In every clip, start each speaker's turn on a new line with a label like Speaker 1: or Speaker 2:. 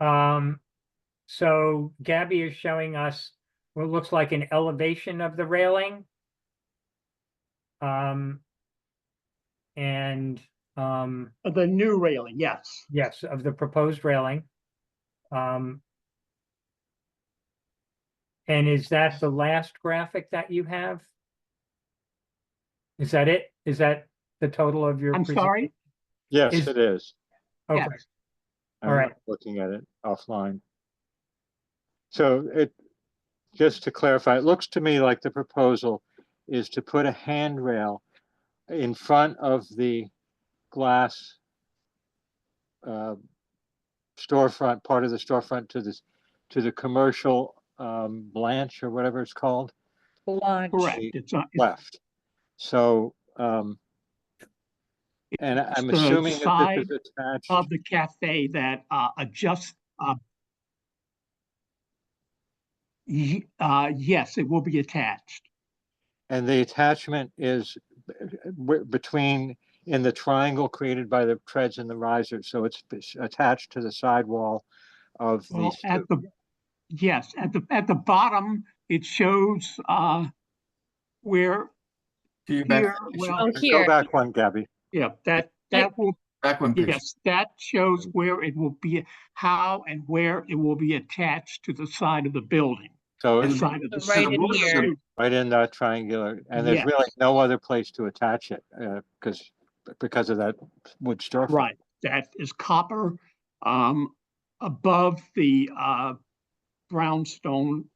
Speaker 1: Um, so Gabby is showing us what looks like an elevation of the railing. Um, and, um,
Speaker 2: The new railing, yes.
Speaker 1: yes, of the proposed railing. Um, and is that the last graphic that you have? Is that it? Is that the total of your?
Speaker 2: I'm
Speaker 1: present-
Speaker 2: sorry.
Speaker 3: Yes,
Speaker 1: Is-
Speaker 3: it is.
Speaker 1: Okay,
Speaker 3: I'm
Speaker 1: All right.
Speaker 3: Looking at it offline. So it, just to clarify, it looks to me like the proposal is to put a handrail in front of the glass uh, storefront, part of the storefront to this, to the commercial um, Blanche or whatever it's called,
Speaker 2: Correct.
Speaker 3: She-
Speaker 2: It's not, it's
Speaker 3: left. So, um, and I'm
Speaker 2: the
Speaker 3: assuming that
Speaker 2: side
Speaker 3: this is attached.
Speaker 2: of the cafe that uh, adjusts. uh, ye- uh, Yes, it will be attached.
Speaker 3: And the attachment is b- w- between, in the triangle created by the treads and the risers, so it's b- s- attached to the sidewall of the,
Speaker 2: Well, at
Speaker 3: stu-
Speaker 2: the, yes, at the, at the bottom, it shows uh, where,
Speaker 4: Do you
Speaker 2: Here,
Speaker 4: back, you should
Speaker 2: well-
Speaker 5: Oh,
Speaker 3: go
Speaker 5: here,
Speaker 3: back one, Gabby.
Speaker 2: yeah, that, that will,
Speaker 4: back one picture.
Speaker 2: yes, that shows where it will be, how and where it will be attached to the side of the building,
Speaker 3: So
Speaker 2: the
Speaker 3: it's
Speaker 2: side of the.
Speaker 5: Right
Speaker 2: street.
Speaker 5: in here.
Speaker 3: right in that triangular, and there's
Speaker 2: Yes.
Speaker 3: really no other place to attach it, uh, because, because of that wood storefront.
Speaker 2: Right, that is copper, um, above the, uh, brownstone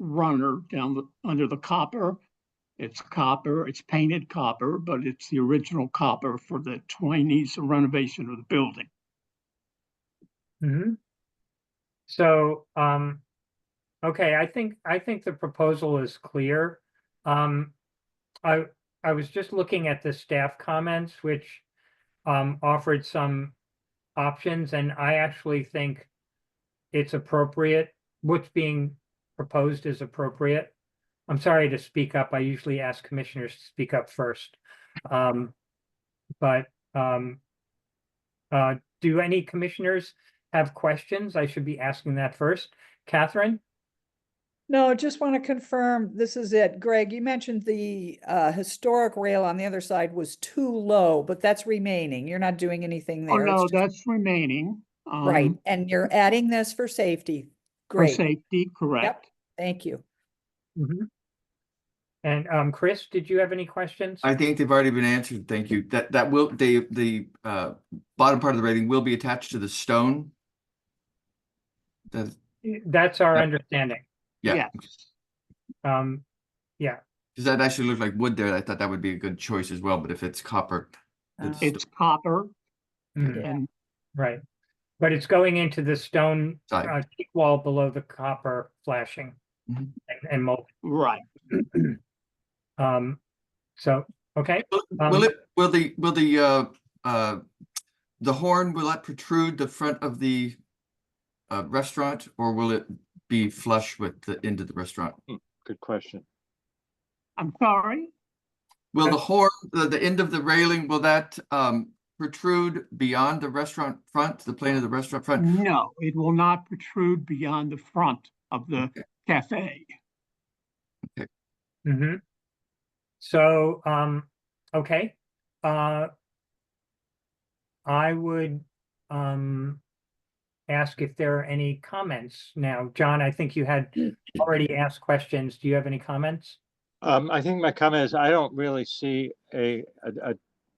Speaker 2: runner down the, under the copper. It's copper, it's painted copper, but it's the original copper for the twenties renovation of the building.
Speaker 1: mhm. So, um, okay, I think, I think the proposal is clear. Um, I, I was just looking at the staff comments, which, um, offered some options, and I actually think it's appropriate, what's being proposed is appropriate. I'm sorry to speak up. I usually ask commissioners to speak up first. Um, but, um, uh, do any commissioners have questions? I should be asking that first. Catherine?
Speaker 6: No, just want to confirm, this is it. Greg, you mentioned the uh historic rail on the other side was too low, but that's remaining. You're not doing anything
Speaker 2: Oh,
Speaker 6: there. it's
Speaker 2: no,
Speaker 6: just-
Speaker 2: that's remaining.
Speaker 6: Right,
Speaker 2: um,
Speaker 6: and you're adding this for safety.
Speaker 2: For
Speaker 6: Great,
Speaker 2: safety, correct.
Speaker 6: thank you.
Speaker 4: Mm-hmm.
Speaker 1: Mhm. And, um, Chris, did you have any questions?
Speaker 4: I think they've already been answered. Thank you. That, that will, the, the, uh, bottom part of the rating will be attached to the stone. That,
Speaker 1: That's our
Speaker 4: Yeah.
Speaker 1: understanding.
Speaker 4: yeah,
Speaker 2: Yes.
Speaker 1: Um,
Speaker 4: because that actually looked like wood there. I thought that would be a good choice as well, but if it's copper,
Speaker 6: Uh,
Speaker 4: It's-
Speaker 2: It's copper
Speaker 1: mm,
Speaker 6: Yeah.
Speaker 2: and
Speaker 1: right. But it's going into the stone,
Speaker 4: Side.
Speaker 1: uh, teak wall below the copper flashing and,
Speaker 4: Mhm.
Speaker 1: and mold.
Speaker 2: right.
Speaker 1: Um, so, okay,
Speaker 4: Will-
Speaker 1: Um,
Speaker 4: Will it, will the, will the, uh, uh, the horn, will that protrude the front of the uh, restaurant or will it be flush with the end of the restaurant?
Speaker 3: Good question.
Speaker 2: I'm sorry.
Speaker 4: Will
Speaker 1: Uh,
Speaker 4: the horn, the, the end of the railing, will that, um, protrude beyond the restaurant front, the plane of the restaurant front?
Speaker 2: No, it will not protrude beyond the front of the
Speaker 4: Okay.
Speaker 2: cafe.
Speaker 1: hmm So, um, okay, uh, I would, um, ask if there are any comments now. John, I think you had already asked questions. Do you have any comments?
Speaker 3: Um, I think my comment is I don't really see a, a, a,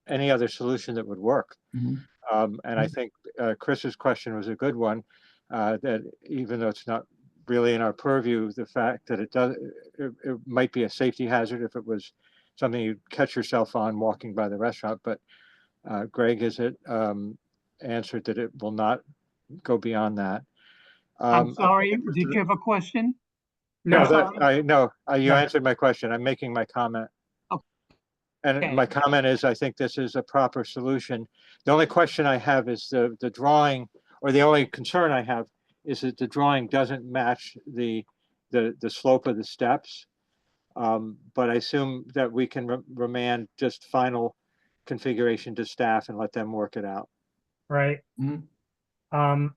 Speaker 3: any other solution that would work.
Speaker 4: Mhm.
Speaker 3: Um, and I think, uh, Chris's question was a good one, uh, that even though it's not really in our purview, the fact that it does, it, it might be a safety hazard if it was something you'd catch yourself on walking by the restaurant, but, uh, Greg has it, um, answered that it will not go beyond that. Um,
Speaker 2: I'm
Speaker 3: I'm
Speaker 2: sorry,
Speaker 3: interested
Speaker 2: did
Speaker 3: in-
Speaker 2: you have a question?
Speaker 3: no,
Speaker 2: Yes,
Speaker 3: that,
Speaker 2: um,
Speaker 3: I, no, uh, you
Speaker 1: no.
Speaker 3: answered my question. I'm making my comment.
Speaker 2: Oh,
Speaker 3: And
Speaker 2: okay.
Speaker 3: my comment is, I think this is a proper solution. The only question I have is the, the drawing, or the only concern I have is that the drawing doesn't match the, the, the slope of the steps. Um, but I assume that we can re- remand just final configuration to staff and let them work it out.
Speaker 1: Right?
Speaker 4: Mhm.
Speaker 1: Um,